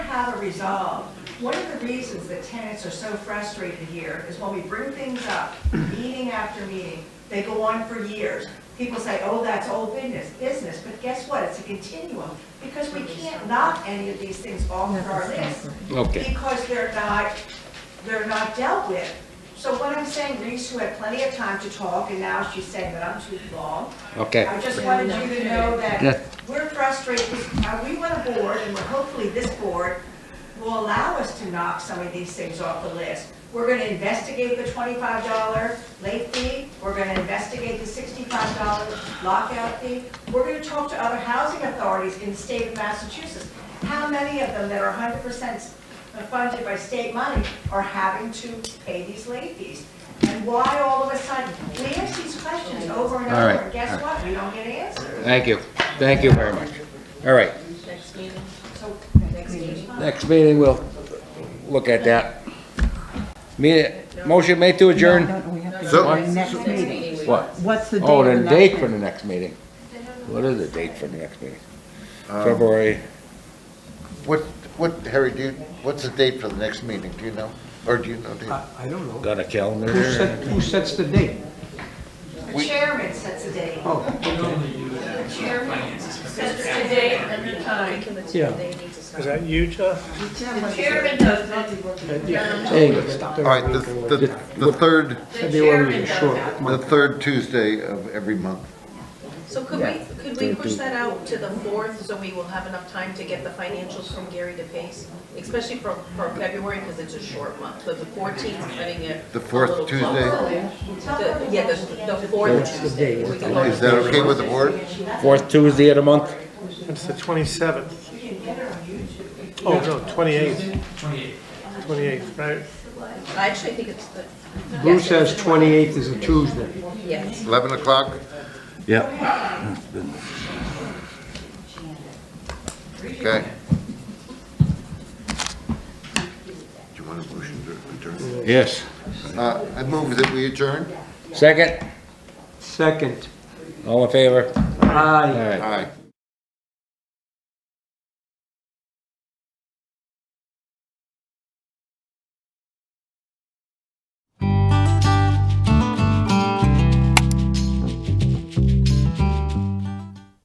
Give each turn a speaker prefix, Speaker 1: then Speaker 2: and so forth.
Speaker 1: have a resolve. One of the reasons that tenants are so frustrated here is when we bring things up, meeting after meeting, they go on for years. People say, oh, that's old business, business, but guess what? It's a continuum, because we can't knock any of these things off of our list.
Speaker 2: Okay,
Speaker 1: Because they're not, they're not dealt with. So what I'm saying, Reese, who had plenty of time to talk, and now she's saying that I'm too long,
Speaker 2: okay.
Speaker 1: I just wanted you to know
Speaker 2: Yeah.
Speaker 1: that we're frustrated, Uh, we want a board, and we're- hopefully this board will allow us to knock some of these things off the list. We're gonna investigate the twenty-five dollar late fee, we're gonna investigate the sixty-five dollar lockout fee. We're gonna talk to other housing authorities in the state of Massachusetts. How many of them that are hundred percent funded by state money are having to pay these late fees? And why all of a sudden, we ask these questions over and
Speaker 2: All
Speaker 1: over,
Speaker 2: right,
Speaker 1: and guess
Speaker 2: all right.
Speaker 1: what? We don't get answers.
Speaker 2: Thank you, thank you very much. All right,
Speaker 3: Next meeting?
Speaker 1: So, next meeting.
Speaker 2: next meeting, we'll look at that. Me, motion made to adjourn?
Speaker 4: No, no, we have to
Speaker 5: So-
Speaker 4: go to the next meeting.
Speaker 3: meeting we-
Speaker 2: What?
Speaker 4: What's the date
Speaker 2: Oh,
Speaker 4: of the
Speaker 2: the
Speaker 4: next
Speaker 2: date for
Speaker 4: meeting?
Speaker 2: the next meeting. What is the date for the next meeting? Uh, February,
Speaker 5: What, what, Harry, do you, what's the date for the next meeting, do you know? Or do you know, do you-
Speaker 6: I I don't know.
Speaker 2: got a calendar
Speaker 6: Who
Speaker 2: there?
Speaker 6: set- Who sets the date?
Speaker 1: The chairman sets a date.
Speaker 6: Oh,
Speaker 1: The chairman sets a
Speaker 3: The
Speaker 1: date.
Speaker 3: date and the time.
Speaker 6: Yeah.
Speaker 7: Is that you, Jeff?
Speaker 3: The chairman does that.
Speaker 6: yeah.
Speaker 2: Hey,
Speaker 5: All right, the, the, the third,
Speaker 3: The chairman does
Speaker 6: sure.
Speaker 3: that.
Speaker 5: the third Tuesday of every month.
Speaker 3: So could we, could we push that out to the fourth, so we will have enough time to get the financials from Gary to Pace? Especially for, for February, because it's a short month, but the fourteenth is getting it.
Speaker 5: The fourth
Speaker 3: a little
Speaker 5: Tuesday?
Speaker 3: closer. The- Yeah, the, the fourth Tuesday. We can
Speaker 5: Is that okay with the board?
Speaker 2: fourth Tuesday of the month?
Speaker 7: It's the 27th. Oh, no, 28th. 28th. 28th, right?
Speaker 3: I actually think it's the.
Speaker 6: Lou says 28th is a Tuesday.
Speaker 3: Yes.
Speaker 5: 11 o'clock?
Speaker 2: Yep.
Speaker 5: Okay. Do you want a motion to adjourn?
Speaker 2: Yes.
Speaker 5: Uh, I move that we adjourn?
Speaker 2: Second,
Speaker 6: Second.
Speaker 2: all in favor?
Speaker 6: Aye.
Speaker 2: All right.
Speaker 5: Aye.